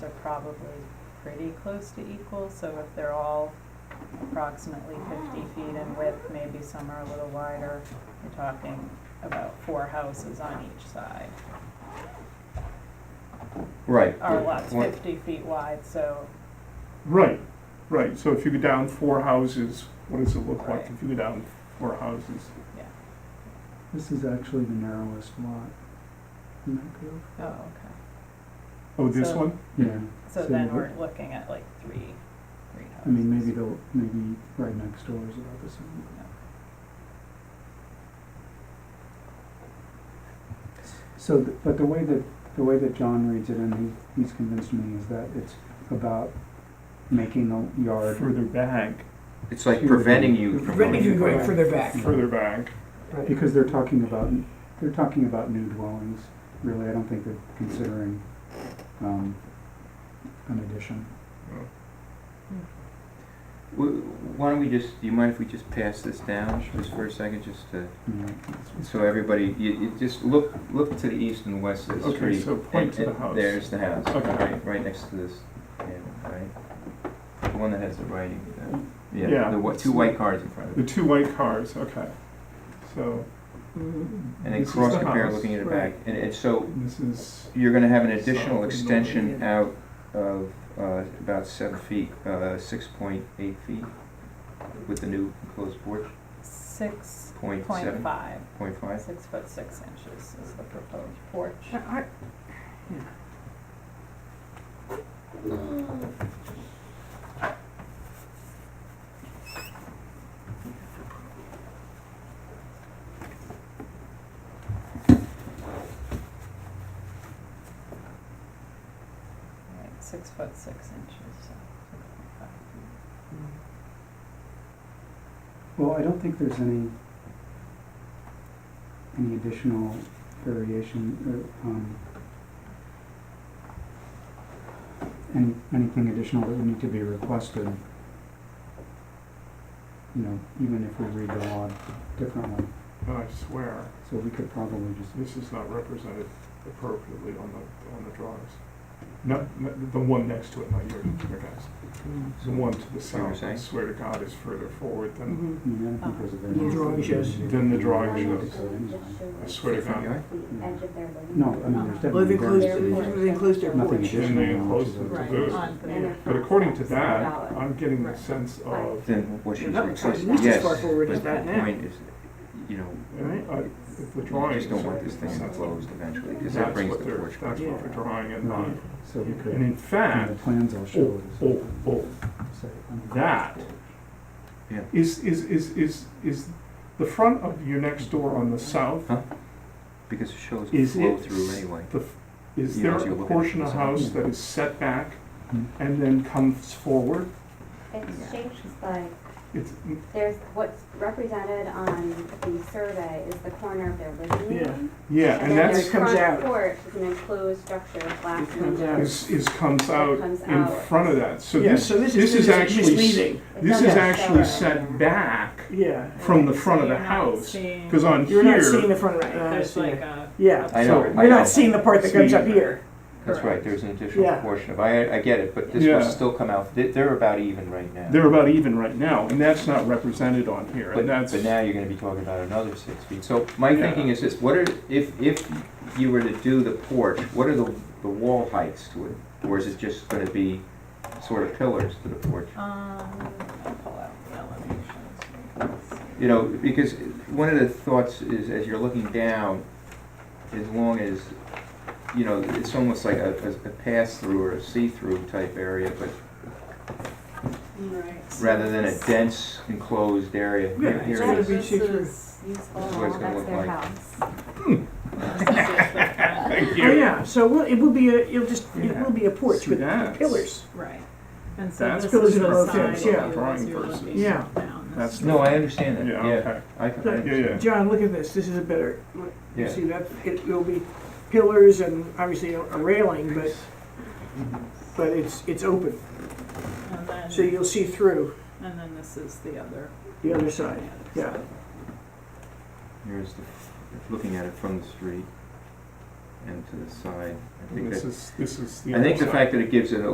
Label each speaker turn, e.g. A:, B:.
A: They're probably pretty close to equal, so if they're all approximately fifty feet in width, maybe some are a little wider, you're talking about four houses on each side.
B: Right.
A: Our
B: but
A: lot's
B: one-
A: fifty feet wide, so
C: Right, right, so if you go down four houses, what does it look like
A: Right.
C: if you go down four houses?
D: This is actually the narrowest lot in that field.
A: Oh, okay.
C: Oh, this
A: So-
C: one?
D: Yeah,
A: So
D: So
A: then
D: you-
A: we're looking at like three, three houses.
D: I mean, maybe they'll, maybe right next door is about the same. So, th- but the way that, the way that John reads it, and he, he's convinced me, is that it's about making the yard,
C: Further back,
B: It's like
D: Here.
B: preventing you from
E: Preventing you
B: going
E: from
B: forward.
E: going further back.
C: further back.
D: because they're talking about, they're talking about new dwellings, really, I don't think they're considering, um, an addition.
B: W- Why don't we just, do you mind if we just pass this down just for a second, just to,
D: you know.
B: so everybody, you, you just look, look to the east and west of the
C: Okay,
B: street.
C: so point
B: and-
C: to the
B: and
C: house.
B: There's the house,
C: Okay.
B: right, right next to this, panel, right? The one that has the writing, uh, yeah,
C: Yeah.
B: the whi- two white cars in front of
C: The
B: it.
C: two white cars, okay. So.
B: And then
C: this is
B: cross
C: the
B: compare
C: house,
B: looking at it
C: right.
B: back. And, and so
C: This is,
B: you're gonna have an
C: South
B: additional
C: and
B: extension
E: north.
B: out of, uh, about seven feet, uh, six point eight feet with the new enclosed porch,
A: Six
B: point
A: point
B: seven,
A: five,
B: point five.
A: six foot six inches is the proposed porch. Right, six foot six inches, so six point five feet.
D: Well, I don't think there's any, any additional variation, or, um, any, anything additional that would need to be requested. You know, even if we read the law differently,
C: I swear,
D: so we could probably just,
C: this is not represented appropriately on the, on the drawings. Not, not, the one next to it, not your, your guys. The one to the
B: were
C: south, I
B: saying?
C: swear to God, is further forward than
D: I mean, I don't think there's a variance.
E: The drawing shows.
C: Then the drawing
D: Anyway.
C: I swear to
B: Front
C: God.
B: yard?
D: No, I mean, there's
E: Well, it
D: definitely
E: includes,
D: variances.
E: it includes their
D: Nothing
E: porch.
F: Mm-hmm.
D: additional.
C: Then they enclose the-
D: Right,
C: those. But according to that, I'm getting the sense of,
B: Then what she's
E: Another
B: requesting,
E: time, this is
B: yes,
E: far
B: but
E: forward as that
B: the
E: now.
B: point is, you know,
E: Right.
C: uh, if the
B: you
C: drawing is.
B: just don't want this
C: the
B: thing
C: sense of-
B: enclosed eventually, because that
C: That's
B: brings
C: what
B: the
C: they're,
B: porch.
C: that's
B: back.
C: what they're drawing in
D: Right.
C: mind.
D: So we could,
C: And in
D: and the
C: fact,
D: plans I'll show
C: oh,
D: is.
C: oh, oh,
D: say, um,
C: that
B: Yeah.
C: is, is, is, is, is the front of your next door on the south,
B: Huh? Because it shows
C: Is
B: flow
C: it-
B: through anyway.
C: the, f- is
B: You
C: there
B: know, as you look
C: a
B: at Mm-hmm.
C: portion
B: it,
C: of
B: it's-
C: house that is set back
D: Hmm.
C: and then comes forward?
F: It's shaped like,
C: It's,
F: there's, what's represented on the survey is the corner of their living
E: Yeah.
F: room.
C: yeah,
E: And
C: and
E: then
C: that's,
E: it comes
F: their
E: out.
F: front porch is an enclosed structure with
E: It
F: glass
E: comes out.
F: windows.
C: is, is comes out
F: comes
C: in
F: out.
C: front of that. So
E: Yeah,
C: this,
E: so this
C: this
E: is
C: is
E: mis-
C: actually s-
E: misleading.
F: It
C: this
F: doesn't
C: is
F: show
C: actually
F: it.
C: set back
E: Yeah.
C: from the
A: So
C: front of the
A: you're not
C: house.
A: seeing-
C: Because on
E: You're not seeing
C: here,
E: the front,
A: Right,
E: right, I
A: there's
E: see
A: like
E: it.
A: a.
E: Yeah.
B: I
C: so
B: know, I
E: You're
B: know.
E: not seeing the part that comes up here.
B: That's right,
A: Correct.
B: there's an additional
E: Yeah.
B: portion of, I, I get it, but this
C: Yeah.
B: will still come out, they- they're about even right now.
C: they're about even right now, and that's not represented on here,
B: But,
C: and that's.
B: but now you're gonna be talking about another six feet. So my
C: Yeah.
B: thinking is this, what are, if, if you were to do the porch, what are the, the wall heights to it? Or is it just gonna be sort of pillars to the porch?
A: Um, I'll pull out the elevations. so you can see.
B: You know, because one of the thoughts is, as you're looking down, as long as, you know, it's almost like a, a- a pass-through or a see-through type area, but
A: Right. so
B: rather than a
A: this-
B: dense enclosed area.
E: Yeah,
B: Here-
E: it's
B: here
E: all
B: it is.
E: the-
A: This is,
F: Useful,
B: That's what it's gonna
F: Oh, that's
B: look
F: their
B: like.
F: house.
A: this is just the front,
C: Thank
E: Oh, yeah, so we'll- it will be a, it'll just, it
C: Yeah.
E: will be a porch
C: See,
E: with
C: that's-
E: pillars.
A: right. And so
C: That's
A: this
E: Those
A: is
E: are
A: the
E: both
A: side
E: things,
A: view
E: yeah.
A: as you're
C: Drawing versus-
A: looking
E: Yeah.
A: down.
C: That's-
A: This
B: No, I understand that,
C: Yeah,
B: yeah.
C: okay.
B: I, I understand.
C: Yeah, yeah.
E: John, look at this, this is a better, you
B: Yeah.
E: see that, it will be pillars and obviously a a railing, but, but it's, it's open,
A: And
E: so
A: then,
E: you'll see through
A: and then this is the other.
E: the other side.
A: the
E: yeah.
A: other side.
B: Here's the, looking at it from the street. and to the side. I
C: And
B: think
C: this
B: that,
C: is, this is the
B: I think the
C: outside.
B: fact that it gives it a